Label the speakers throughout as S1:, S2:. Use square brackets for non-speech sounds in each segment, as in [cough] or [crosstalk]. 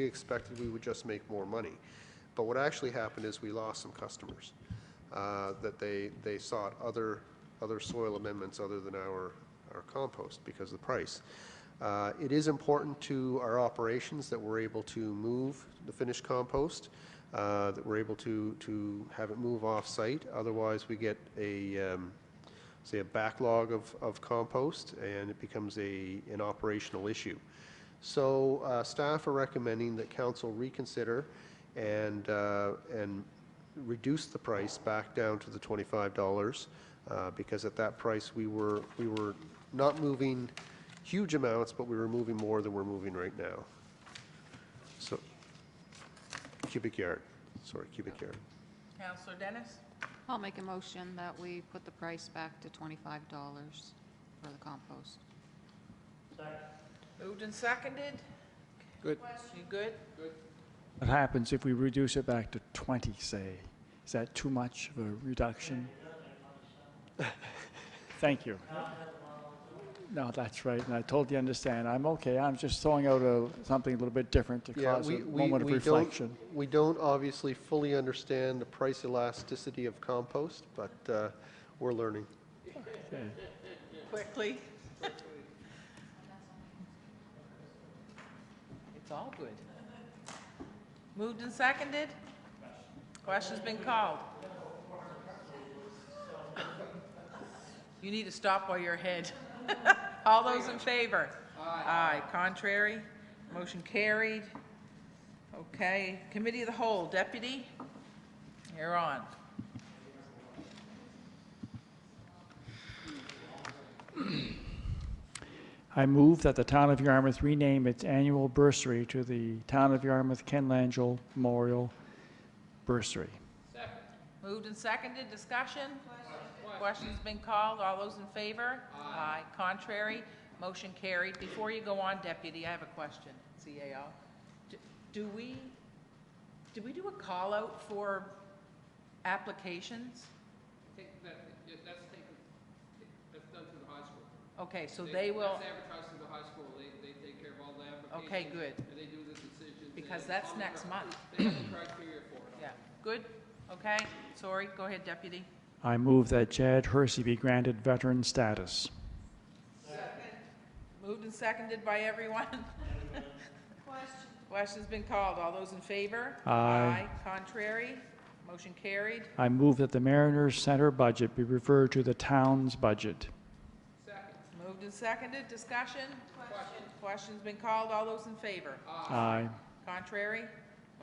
S1: We expected we would just make more money. But what actually happened is we lost some customers, uh, that they, they sought other, other soil amendments other than our, our compost because of the price. Uh, It is important to our operations that we're able to move the finished compost, uh, that we're able to, to have it move off-site. Otherwise, we get a, um, say, a backlog of, of compost, and it becomes a, an operational issue. So uh, staff are recommending that council reconsider and, uh, and reduce the price back down to the $25, uh, because at that price, we were, we were not moving huge amounts, but we were moving more than we're moving right now. So, cubic yard, sorry, cubic yard.
S2: Counselor Dennis?
S3: I'll make a motion that we put the price back to twenty-five dollars for the compost.
S2: Moved and seconded?
S4: Good.
S2: You good?
S5: What happens if we reduce it back to 20, say? Is that too much of a reduction? [laughs] Thank you. No, that's right, and I totally understand. I'm okay, I'm just throwing out a, something a little bit different to
S1: Yeah,
S5: cause a
S1: we, we,
S5: moment of
S1: we don't,
S5: reflection.
S1: we don't obviously fully understand the price elasticity of compost, but uh, we're learning.
S5: Okay.
S2: Quickly? It's all good. Moved and seconded? Question's been called. You need to stop while you're ahead. [laughs] All those in favor? Aye. Contrary? Motion carried. Okay, Committee of the Whole, Deputy, you're on.
S5: I move that the Town of Yarmouth rename its annual bursary to the Town of Yarmouth Ken Langell Memorial Bursary.
S2: Moved and seconded, discussion? Question's been called, all those in favor? Aye. Contrary, motion carried. Before you go on, Deputy, I have a question, CAO. D- Do we, do we do a call-out for applications?
S4: Take that, yeah, that's taken, that's done through the high school.
S2: Okay, so they will,
S4: That's advertised through the high school, they, they take care of all the applications.
S2: okay, good,
S4: And they do the decisions. They
S2: because
S4: have
S2: that's
S4: all the
S2: next
S4: cri-
S2: month.
S4: They have the criteria for it.
S2: Yeah, good, okay, sorry, go ahead, Deputy.
S5: I move that Chad Hersey be granted veteran status.
S2: Moved and seconded by everyone. Question's been called. All those in favor?
S5: Aye.
S2: Contrary? Motion carried.
S5: I move that the Mariners Center budget be referred to the town's budget.
S2: Moved and seconded. Discussion? Question's been called. All those in favor?
S5: Aye.
S2: Contrary?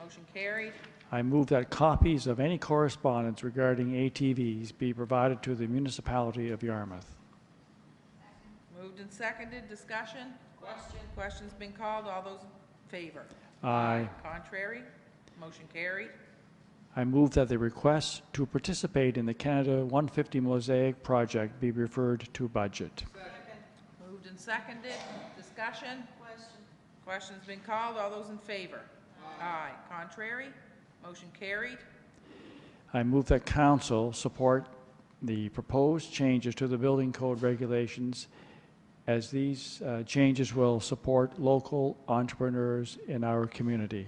S2: Motion carried.
S5: I move that copies of any correspondence regarding ATVs be provided to the municipality of Yarmouth.
S2: Moved and seconded. Discussion? Question's been called. All those in favor?
S5: Aye.
S2: Contrary? Motion carried.
S5: I move that the request to participate in the Canada 150 Mosaic project be referred to budget.
S2: Moved and seconded, discussion? Question. Question's been called, all those in favor? Aye. Contrary? Motion carried.
S5: I move that council support the proposed changes to the building code regulations as these uh, changes will support local entrepreneurs in our community.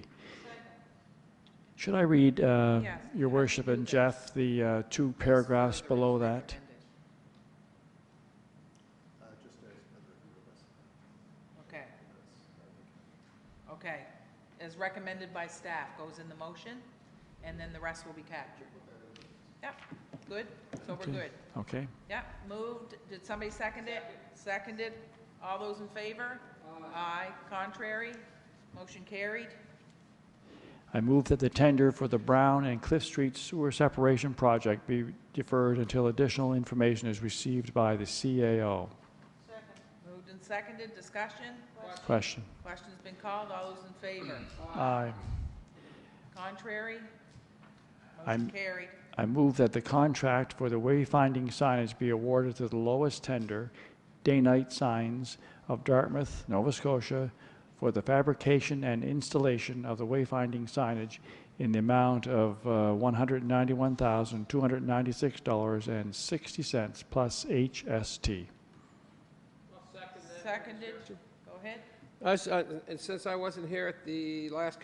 S5: Should I read, uh,
S2: Yes.
S5: Your Worship and Jeff, the uh, two paragraphs below that?
S2: Uh, Okay. Okay, as recommended by staff, goes in the motion, and then the rest will be captured. Yep, good, so we're
S5: Okay.
S2: good.
S5: Okay.
S2: Yep, moved, did somebody second it? Seconded, all those in favor? Aye. Contrary? Motion carried.
S5: I move that the tender for the Brown and Cliff Street Sewer Separation Project be deferred until additional information is received by the CAO.
S2: Moved and seconded, discussion?
S5: Question.
S2: Question's been called, all those in favor?
S5: Aye.
S2: Contrary? Motion
S5: I'm-
S2: carried.
S5: I move that the contract for the wayfinding signage be awarded to the lowest tender, Day-Night Signs of Dartmouth, Nova Scotia, for the fabrication and installation of the wayfinding signage in the amount of uh, $191,296.60 plus HST.
S2: Seconded, go ahead.
S4: uh, I s- I- And since I wasn't here at the last